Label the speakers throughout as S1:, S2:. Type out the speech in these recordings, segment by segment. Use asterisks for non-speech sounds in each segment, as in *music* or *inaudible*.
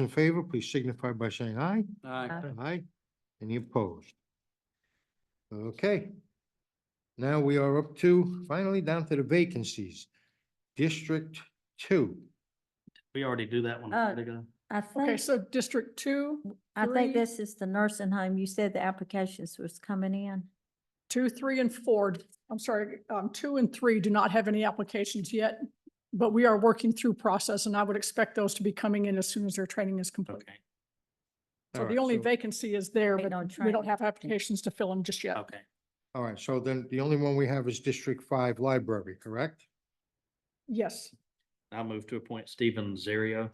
S1: in favor, please signify by saying aye.
S2: Aye.
S1: Aye. Any opposed? Okay. Now we are up to, finally down to the vacancies. District Two.
S3: We already do that one. a
S2: Uh,
S3: minute ago.
S2: I
S4: Okay,
S2: think,
S4: so District Two,
S2: I think
S4: three-
S2: this is the nursing home. You said the applications was coming in.
S4: two, three, and four, I'm sorry, um, two and three do not have any applications yet, but we are working through process, and I would expect those to be coming in as soon as their training is complete.
S3: Okay,
S4: So
S1: All
S4: the
S1: right,
S4: only vacancy is there,
S2: Wait
S4: but
S2: on
S4: we
S2: training.
S4: don't have applications to fill them just yet.
S3: okay.
S1: All right, so then the only one we have is District Five Library, correct?
S4: Yes,
S3: I'll move to appoint Stephen Zerio.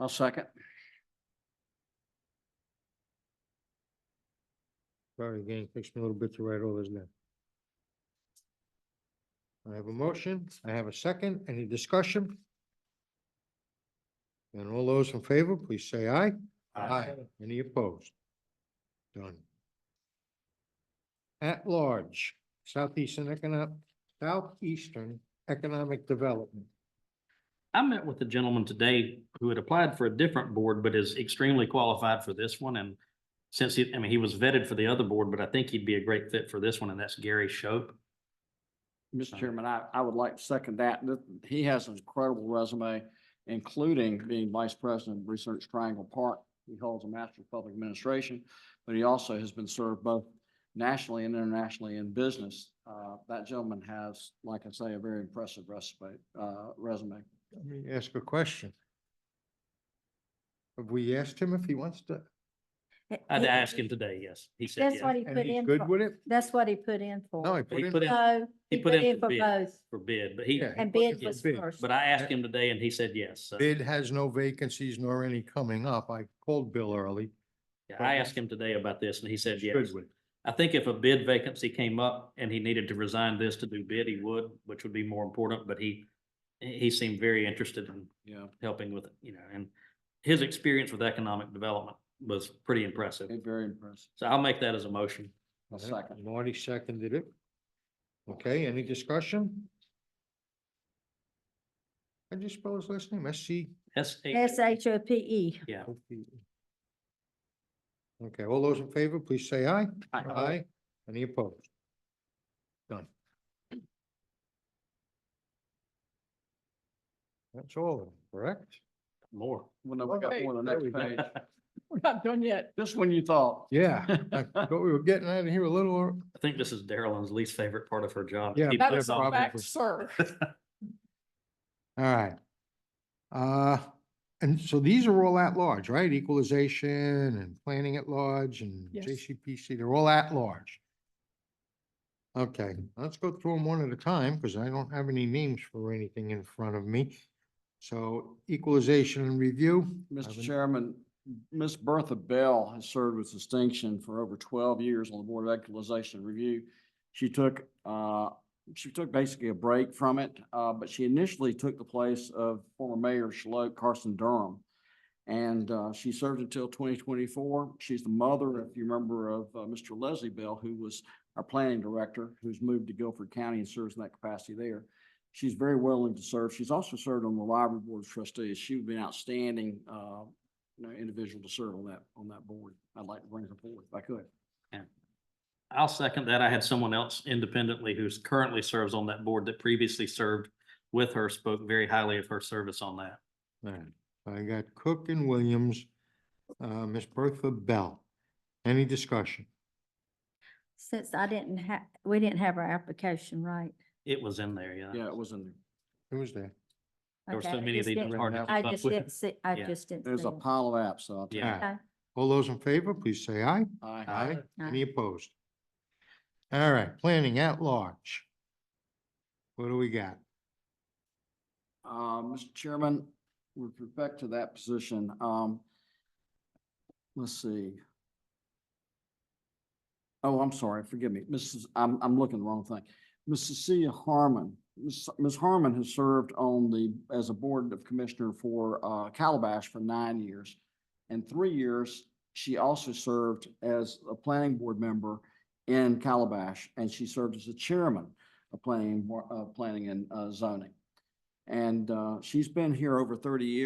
S5: I'll second.
S1: Sorry, again, it takes me a little bit to write all this down. I have a motion, I have a second, any discussion? And all those in favor, please say aye.
S3: Uh,
S1: Any opposed? Done. At large, Southeastern Economic, Southeastern Economic Development.
S3: I met with a gentleman today who had applied for a different board, but is extremely qualified for this one. And since he, I mean, he was vetted for the other board, but I think he'd be a great fit for this one, and that's Gary Shope.
S5: Mr. Chairman, I, I would like to second that. Th- He has an incredible resume, including being Vice President of Research Triangle Park. He holds a Master of Public Administration, but he also has been served both nationally and internationally in business. Uh, that gentleman has, like I say, a very impressive resume, uh, resume.
S1: Let me ask a question. Have we asked him if he wants to,
S2: He-
S3: I'd
S2: he-
S3: ask him today, yes. He said
S2: That's what
S3: yes.
S2: he
S1: and
S2: put
S1: he's
S2: in
S1: good
S2: for.
S1: with it?
S2: That's what he put in for.
S1: No, he put
S3: He
S1: in,
S3: put in
S2: So he put in for
S3: bid.
S2: both
S3: for bid, but he,
S1: Yeah, he
S2: and
S1: put in
S2: bid
S1: for
S2: was
S1: bid,
S2: first.
S3: but I asked him today and he said yes. So
S1: bid has no vacancies nor any coming up. I called Bill early.
S3: yeah, I asked him today about this and he said
S1: He's
S3: yes.
S1: good with it.
S3: I think if a bid vacancy came up and he needed to resign this to do bid, he would, which would be more important, but he, he seemed very interested in
S5: Yeah,
S3: helping with, it, you know, and his experience with economic development was pretty impressive.
S5: very impressive.
S3: So I'll make that as a motion.
S5: I'll
S1: Okay,
S5: second.
S1: Marty seconded it. Okay, any discussion? I just spell his last name? S C
S3: S H.
S2: S H O P E.
S3: Yeah,
S1: O P E. Okay, all those in favor, please say aye. Aye. Any opposed? Done. That's all, of them, correct?
S5: *laughs*
S3: *laughs* more.
S5: Well, no, we got
S4: Okay,
S5: one on the
S1: there we
S5: next
S1: go.
S5: page.
S3: I
S4: we're not done yet.
S5: Just when you
S1: *laughs*
S5: thought.
S1: Yeah, I thought we were getting out of here a little, ear-
S3: think this is Darylyn's least favorite part of her job.
S1: Yeah,
S3: Keep
S4: That
S3: us
S4: is
S3: off.
S4: a
S1: problem.
S4: fact, sir.
S1: all right. Uh, and so these are all at large, right? Equalization and planning at large and
S4: Yes.
S1: JCPC, they're all at large. Okay, let's go through them one at a time because I don't have any names for anything in front of me. So equalization and review. I
S5: Mr.
S1: would-
S5: Chairman, Ms. Bertha Bell has served with distinction for over twelve years on the Board of Equalization Review. She took, uh, she took basically a break from it, uh, but she initially took the place of former Mayor Shalote Carson Durham. And, uh, she served until twenty twenty-four. She's the mother, if you remember, of, uh, Mr. Leslie Bell, who was our planning director, who's moved to Guilford County and serves in that capacity there. She's very willing to serve. She's also served on the library board of trustees. She would be an outstanding, uh, you know, individual to serve on that, on that board. I'd like to bring her forward if I could.
S3: I'll second that. I had someone else independently who's currently serves on that board that previously served with her, spoke very highly of her service on that.
S1: All right, I got Cook and Williams, uh, Miss Bertha Bell. Any discussion?
S2: Since I didn't have, we didn't have our application right.
S3: It was in there, yeah.
S5: Yeah, it was in there.
S1: Who was there?
S3: There were
S2: Okay,
S3: so
S2: I
S3: many of
S2: just
S3: these.
S2: didn't-
S3: it's hard to
S2: I
S3: keep up
S2: just
S3: with.
S2: didn't see, I
S3: Yeah.
S2: just didn't.
S5: There's
S2: see
S5: a
S2: them.
S5: pile of apps, so I'll tell you.
S3: Yeah.
S1: All right. All those in favor, please say aye.
S5: Aye.
S3: Aye.
S1: Any opposed? All right, planning at large. What do we got?
S5: Uh, Mr. Chairman, with respect to that position, um, let's see. Oh, I'm sorry, forgive me. Mrs., I'm, I'm looking the wrong thing. Ms. Cecilia Harmon. Ms. Ms. Harmon has served on the, as a Board of Commissioner for, uh, Calabash for nine years. And three years, she also served as a planning board member in Calabash, and she served as the chairman of planning, Bo- uh, planning and uh, zoning. And uh, she's been here over 30 years.